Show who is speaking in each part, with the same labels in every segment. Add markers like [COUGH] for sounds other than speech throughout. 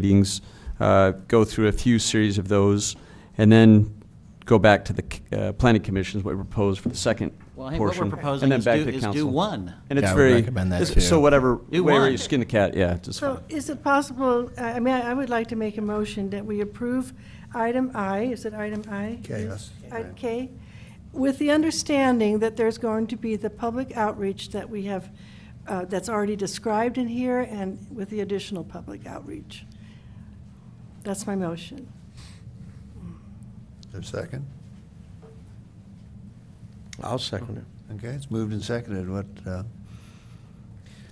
Speaker 1: meetings, uh, go through a few series of those, and then go back to the uh, planning commissions, what we proposed for the second
Speaker 2: Well, I
Speaker 1: portion.
Speaker 2: think what we're
Speaker 1: and
Speaker 2: proposing
Speaker 1: then
Speaker 2: is do,
Speaker 1: back to
Speaker 2: is do
Speaker 1: council.
Speaker 2: one.
Speaker 1: And it's
Speaker 3: Yeah, I would
Speaker 1: very.
Speaker 3: recommend that
Speaker 1: it's-
Speaker 3: too.
Speaker 1: So whatever,
Speaker 2: Do
Speaker 1: where
Speaker 2: one.
Speaker 1: you skin the cat, yeah, just fine.
Speaker 4: So is it possible, I I mean, I I would like to make a motion that we approve item I, is it item I?
Speaker 5: K,
Speaker 4: Yes.
Speaker 5: yes.
Speaker 4: Item K, with the understanding that there's going to be the public outreach that we have, uh, that's already described in here, and with the additional public outreach. That's my motion.
Speaker 5: Is there a second?
Speaker 6: I'll second it.
Speaker 5: Okay, it's moved and seconded. What, uh,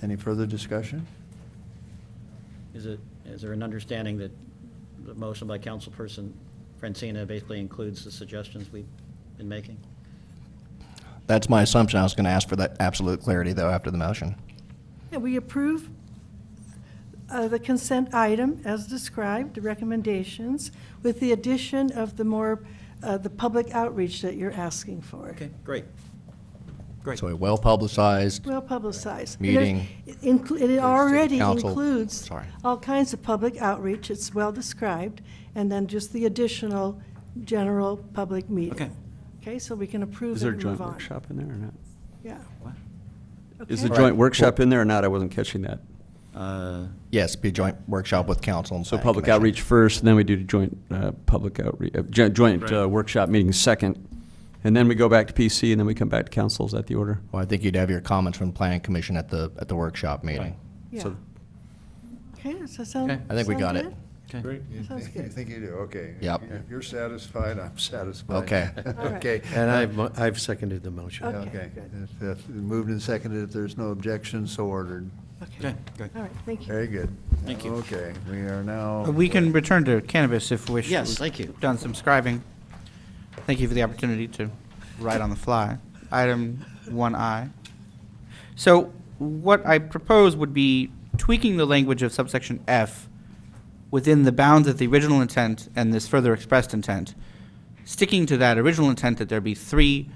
Speaker 5: any further discussion?
Speaker 2: Is it, is there an understanding that the motion by councilperson Francina basically includes the suggestions we've been making?
Speaker 3: That's my assumption. I was going to ask for that absolute clarity, though, after the motion.
Speaker 4: And we approve uh, the consent item as described, the recommendations, with the addition of the more, uh, the public outreach that you're asking for.
Speaker 2: Okay, great. Great.
Speaker 3: So a well-publicized,
Speaker 4: Well publicized.
Speaker 3: Meeting.
Speaker 4: It inclu- it already
Speaker 3: Council.
Speaker 4: includes
Speaker 3: Sorry.
Speaker 4: all kinds of public outreach, it's well-described, and then just the additional general public meeting.
Speaker 2: Okay.
Speaker 4: Okay, so we can approve
Speaker 1: Is
Speaker 4: it
Speaker 1: there a
Speaker 4: and
Speaker 1: joint
Speaker 4: move on.
Speaker 1: workshop in there or not?
Speaker 4: Yeah.
Speaker 2: What?
Speaker 1: Is the
Speaker 4: Okay.
Speaker 1: joint workshop in there or not? I wasn't catching that.
Speaker 2: Uh,
Speaker 3: yes, be a joint workshop with council and
Speaker 1: So
Speaker 3: planning
Speaker 1: public
Speaker 3: commission.
Speaker 1: outreach first, and then we do the joint, uh, public outreach, joint uh, workshop meeting second, and then we go back to PC, and then we come back to council. Is that the order?
Speaker 3: Well, I think you'd have your comments from planning commission at the, at the workshop meeting.
Speaker 2: Right.
Speaker 4: Yeah.
Speaker 1: So-
Speaker 4: Okay, does that sound?
Speaker 2: Okay.
Speaker 3: I think we
Speaker 4: sound
Speaker 3: got
Speaker 4: good?
Speaker 3: it.
Speaker 2: Okay.
Speaker 4: Sounds
Speaker 5: You
Speaker 4: good.
Speaker 5: think you do, okay.
Speaker 3: Yep.
Speaker 5: If you're satisfied, I'm satisfied. [LAUGHS]
Speaker 3: Okay.
Speaker 4: All right.
Speaker 5: Okay.
Speaker 6: And I've, mo- I've seconded the motion.
Speaker 4: Okay.
Speaker 5: Okay.
Speaker 4: good.
Speaker 5: If- if Moved and seconded. If there's no objection, so ordered.
Speaker 2: Okay, great.
Speaker 4: All right, thank you.
Speaker 5: Very good.
Speaker 2: Thank you.
Speaker 5: Okay, we are now.
Speaker 7: We can return to cannabis if we wish.
Speaker 2: Yes,
Speaker 7: We've
Speaker 2: thank you.
Speaker 7: Done some scribing. Thank you for the opportunity to write on the fly. Item one I. So what I propose would be tweaking the language of subsection F within the bounds of the original intent and this further expressed intent, sticking to that original intent that there be three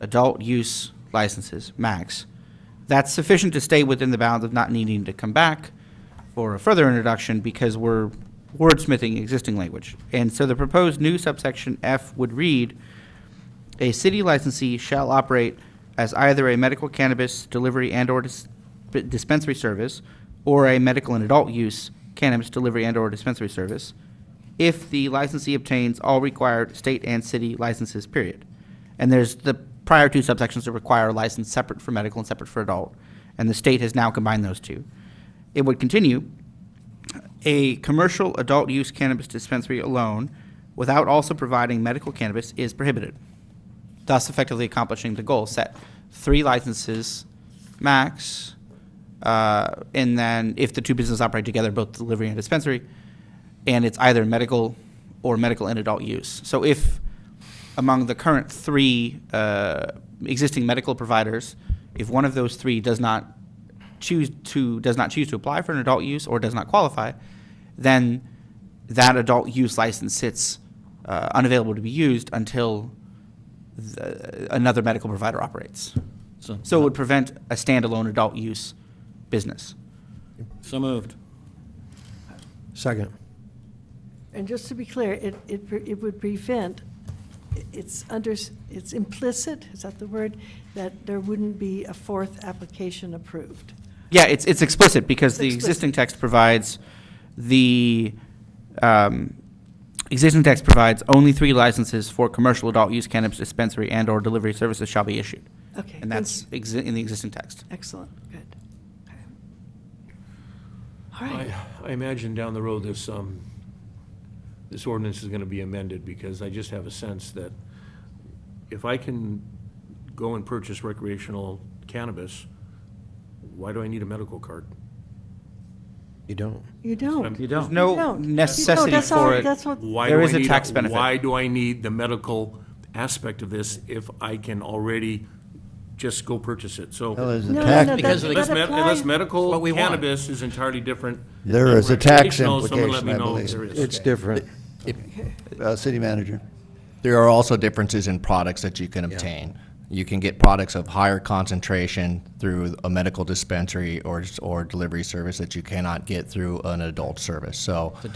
Speaker 7: adult use licenses max. That's sufficient to stay within the bounds of not needing to come back for a further introduction because we're wordsmithing existing language. And so the proposed new subsection F would read, a city licensee shall operate as either a medical cannabis delivery and/or dis- dispensary service, or a medical and adult use cannabis delivery and/or dispensary service, if the licensee obtains all required state and city licenses, period. And there's the prior two subsections that require a license separate for medical and separate for adult, and the state has now combined those two. It would continue, a commercial adult use cannabis dispensary alone, without also providing medical cannabis, is prohibited thus effectively accomplishing the goal set three licenses max uh, and then if the two businesses operate together both delivery and dispensary and it's either medical or medical and adult use so if among the current three uh, existing medical providers if one of those three does not choose to does not choose to apply for an adult use or does not qualify then that adult use license sits uh, unavailable to be used until th- another medical provider operates. So it would prevent a standalone adult use business.
Speaker 2: So moved.
Speaker 6: Second.
Speaker 4: And just to be clear, it, it, pre- it would prevent, i- it's under, it's implicit, is that the word, that there wouldn't be a fourth application approved.
Speaker 7: Yeah, it's, it's explicit because the
Speaker 4: Explicit.
Speaker 7: existing text provides the, um, existing text provides only three licenses for commercial adult use cannabis dispensary and or delivery services shall be issued.
Speaker 4: Okay.
Speaker 7: And that's
Speaker 4: thank you.
Speaker 7: exi- in the existing text.
Speaker 4: Excellent, good. Okay. All right,
Speaker 8: I, I imagine down the road, this, um, this ordinance is gonna be amended, because I just have a sense that if I can go and purchase recreational cannabis, why do I need a medical card?
Speaker 6: You don't.
Speaker 4: you don't.
Speaker 2: You
Speaker 7: There's
Speaker 2: don't.
Speaker 4: You
Speaker 7: no
Speaker 4: don't. You don't,
Speaker 7: necessity
Speaker 4: that's all-
Speaker 7: for it.
Speaker 4: That's what,
Speaker 8: Why
Speaker 7: There
Speaker 8: do I
Speaker 7: is a
Speaker 8: need
Speaker 7: tax benefit.
Speaker 8: Why do I need the medical aspect of this if I can already just go purchase it?
Speaker 5: Well,
Speaker 8: So,
Speaker 5: there's a
Speaker 4: no, no,
Speaker 5: tax-
Speaker 4: no,
Speaker 2: Because
Speaker 4: that
Speaker 2: of the-
Speaker 4: that
Speaker 8: unless, med-
Speaker 4: applies,
Speaker 8: unless medical
Speaker 2: What we want.
Speaker 8: cannabis is entirely different.
Speaker 5: There
Speaker 8: than
Speaker 5: is a tax
Speaker 8: recreational, someone let
Speaker 5: implication,
Speaker 8: me
Speaker 5: I
Speaker 8: know
Speaker 5: believe.
Speaker 8: if there is.
Speaker 6: It's different.
Speaker 5: Uh, City manager.
Speaker 3: There are also differences in products that you can obtain. You can get products of higher concentration through a medical dispensary or, or delivery service that you cannot get through an adult service. So